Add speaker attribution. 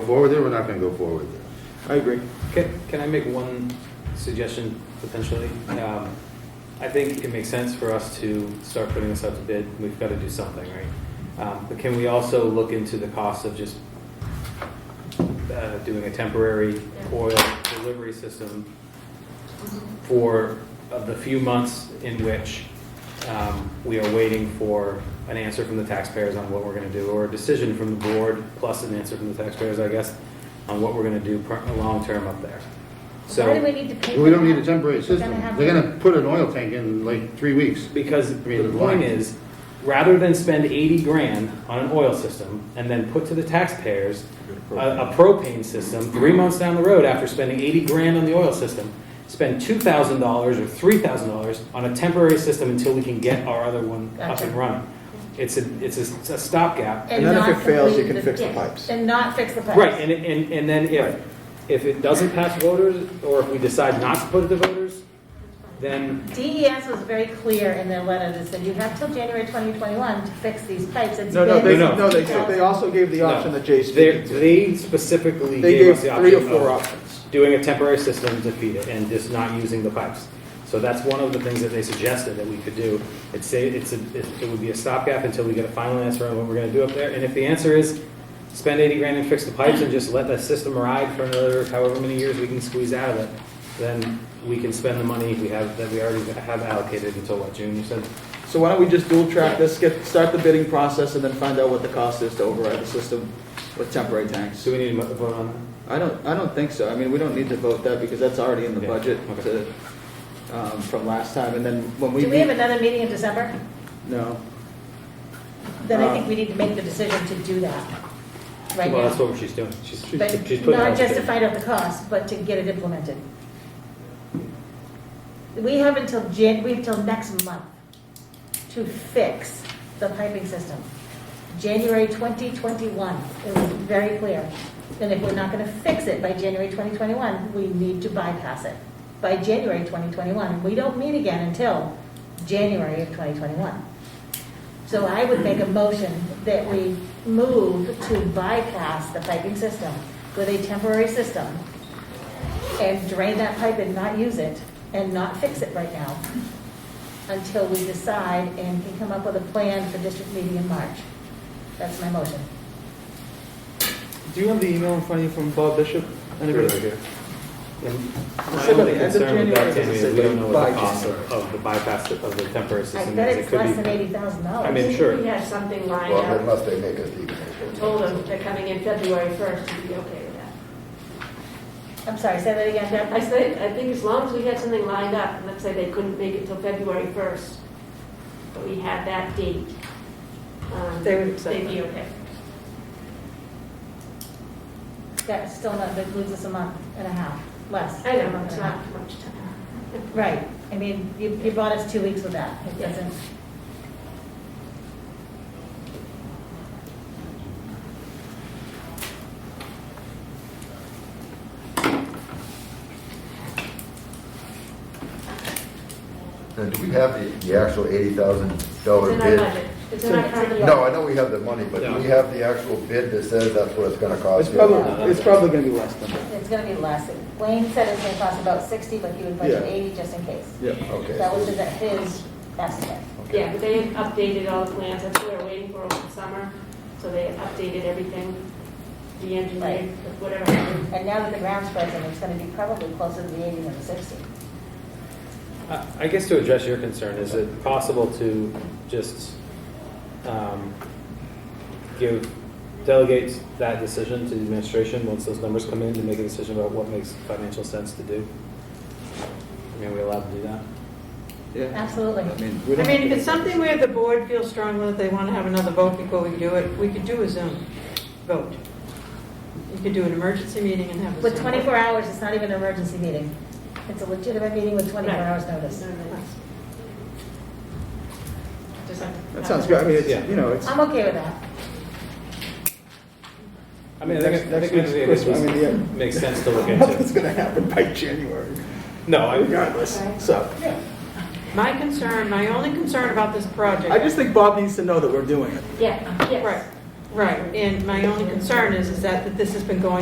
Speaker 1: forward there, we're not gonna go forward there.
Speaker 2: I agree.
Speaker 3: Can, can I make one suggestion potentially?
Speaker 2: Mm-hmm.
Speaker 3: Um, I think it makes sense for us to start putting this out to bid. We've got to do something, right? Um, But can we also look into the cost of just uh, doing a temporary oil delivery system for of the few months in which um, we are waiting for an answer from the taxpayers on what we're going to do, or a decision from the board, plus an answer from the taxpayers, I guess, on what we're going to do per- long-term up there.
Speaker 4: Why do we
Speaker 3: So,
Speaker 4: need to pay?
Speaker 1: We don't
Speaker 4: for
Speaker 1: need a
Speaker 4: that?
Speaker 1: temporary
Speaker 4: We're
Speaker 1: system.
Speaker 4: gonna have
Speaker 1: They're
Speaker 4: to-
Speaker 1: gonna put an oil tank in like three weeks.
Speaker 3: because
Speaker 1: mean,
Speaker 3: the
Speaker 1: why?
Speaker 3: point is, rather than spend 80 grand on an oil system and then put to the taxpayers a a propane system, three months down the road after spending 80 grand on the oil system, spend $2,000 or $3,000 on a temporary system until we can get our other one up
Speaker 4: Gotcha.
Speaker 3: and running. It's a, it's a a stopgap.
Speaker 2: And then if
Speaker 4: not
Speaker 2: it fails, you
Speaker 4: complete
Speaker 2: can fix the
Speaker 4: yeah,
Speaker 2: pipes.
Speaker 4: And not fix the pipes.
Speaker 3: Right, and, it- and, and then
Speaker 2: Right.
Speaker 3: if, if it doesn't pass voters, or if we decide not to put it to voters, then,
Speaker 4: DES E was very clear in their letter that said you have till January 2021 to fix these pipes. It's
Speaker 2: No, no,
Speaker 4: been-
Speaker 2: they,
Speaker 3: No, no.
Speaker 2: no, they, they also gave the
Speaker 3: No.
Speaker 2: option that Jay's
Speaker 3: they,
Speaker 2: speaking to.
Speaker 3: they specifically
Speaker 2: They
Speaker 3: gave
Speaker 2: gave
Speaker 3: us the
Speaker 2: three or
Speaker 3: option
Speaker 2: four
Speaker 3: of
Speaker 2: options.
Speaker 3: doing a temporary system to feed it and just not using the pipes. So that's one of the things that they suggested that we could do. It's say, it's, a- it it would be a stopgap until we get a final answer on what we're gonna do up there. And if the answer is spend eighty grand and fix the pipes and just let that system ride for another however many years we can squeeze out of it, then we can spend the money we have, that we already have allocated until what, June, you said?
Speaker 2: So why don't we just dual track this, get, start the bidding process and then find out what the cost is to override the system with temporary tanks?
Speaker 3: Do we need to mo- vote on that?
Speaker 2: I don't, I don't think so. I mean, we don't need to vote that because that's already in the
Speaker 3: Yeah,
Speaker 2: budget
Speaker 3: okay.
Speaker 2: to, um, from last time. And then when we
Speaker 4: Do we have
Speaker 2: meet,
Speaker 4: another meeting in December?
Speaker 2: no.
Speaker 4: Then I
Speaker 2: Uh,
Speaker 4: think we need to make the decision to do that right
Speaker 3: Well, that's
Speaker 4: now.
Speaker 3: what she's doing. She's, she's
Speaker 4: But
Speaker 3: putting. it out
Speaker 4: not
Speaker 3: there.
Speaker 4: just to find out the cost, but to get it implemented. We have until Jan, we have till next month to fix the piping system. January 2021, it was very clear. And if we're not going to fix it by January 2021, we need to bypass it by January 2021. We don't meet again until January of 2021. So I would make a motion that we move to bypass the piping system with a temporary system and drain that pipe and not use it and not fix it right now until we decide and can come up with a plan for district meeting in March. That's my motion.
Speaker 2: Do you have the email in front of you from Bob Bishop?
Speaker 1: Sure,
Speaker 2: Anybody?
Speaker 1: right here.
Speaker 3: And My
Speaker 2: Said by the
Speaker 3: only
Speaker 2: end of
Speaker 3: concern with
Speaker 2: January,
Speaker 3: that, Tammy,
Speaker 2: as I
Speaker 3: is
Speaker 2: said,
Speaker 3: we don't know what the
Speaker 2: by
Speaker 3: cost
Speaker 2: December.
Speaker 3: of, of the bypass of the temporary
Speaker 4: I
Speaker 3: system
Speaker 4: bet
Speaker 3: is.
Speaker 4: it's
Speaker 3: It could
Speaker 4: less than
Speaker 3: be,
Speaker 4: eighty thousand
Speaker 3: I
Speaker 4: dollars.
Speaker 3: mean, sure.
Speaker 5: We have something lined
Speaker 6: Well,
Speaker 5: up,
Speaker 6: unless they make us even.
Speaker 5: told them they're coming in February 1st, to be okay with that.
Speaker 4: I'm sorry, say that again, Deb.
Speaker 5: I said, I think as long as we had something lined up, let's say they couldn't make it till February 1st, but we had that date. um,
Speaker 4: They would accept
Speaker 5: They'd be okay.
Speaker 4: That's still not, that loses us a month and a half, less.
Speaker 5: I
Speaker 4: A
Speaker 5: know,
Speaker 4: month
Speaker 5: it's
Speaker 4: and a half.
Speaker 5: not much time.
Speaker 4: Right, I mean, you, you brought us two weeks with that, it
Speaker 5: Yeah.
Speaker 4: doesn't.
Speaker 6: And Uh, do we have the, the actual eighty thousand dollar
Speaker 5: It's in our
Speaker 6: bid?
Speaker 5: budget, it's in our current budget.
Speaker 6: No, I know we have the money, but do we
Speaker 3: No.
Speaker 6: have the actual bid that says that's what it's gonna cost?
Speaker 2: It's probably, it's probably gonna be less than that.
Speaker 4: It's gonna be less. Wayne said it's gonna cost about sixty, but he would budget
Speaker 2: Yeah.
Speaker 4: eighty just in case.
Speaker 2: Yeah.
Speaker 4: That was
Speaker 6: Okay.
Speaker 4: his- his estimate.
Speaker 5: Yeah, but they had updated all the plans, that's what we were waiting for over the summer, so they updated everything, the engineering, whatever. happened.
Speaker 4: And now that the ground's frozen, it's gonna be probably closer to the eighty than the sixty.
Speaker 3: I- I guess to address your concern, is it possible to just, um, give, delegate that decision to the administration once those numbers come in to make a decision about what makes financial sense to do? I mean, are we allowed to do that?
Speaker 2: Yeah.
Speaker 4: Absolutely.
Speaker 2: I mean, we
Speaker 7: I
Speaker 2: don't.
Speaker 7: mean, if it's something where the board feels strongly that they want to have another vote before we do it, we could do a Zoom vote. You could do an emergency meeting and have a Zoom.
Speaker 4: With twenty-four hours, it's not even an emergency meeting. It's a legitimate meeting with twenty-four
Speaker 5: Right.
Speaker 4: hours notice.
Speaker 5: Just like-
Speaker 2: That sounds good. I mean,
Speaker 3: Yeah.
Speaker 2: it's, you know, it's.
Speaker 4: I'm okay with that.
Speaker 3: I mean, I
Speaker 2: Next-
Speaker 3: think, I
Speaker 2: next
Speaker 3: think maybe
Speaker 2: week's
Speaker 3: it
Speaker 2: Christmas. I mean, yeah.
Speaker 3: just makes sense to look
Speaker 2: Nothing's
Speaker 3: into.
Speaker 2: gonna happen by January,
Speaker 3: No, I,
Speaker 2: regardless, so.
Speaker 7: My concern, my only concern about this project.
Speaker 2: I just think Bob needs to know that we're doing it.
Speaker 5: Yeah, yes.
Speaker 7: Right, right, and my only concern is, is that that this has been going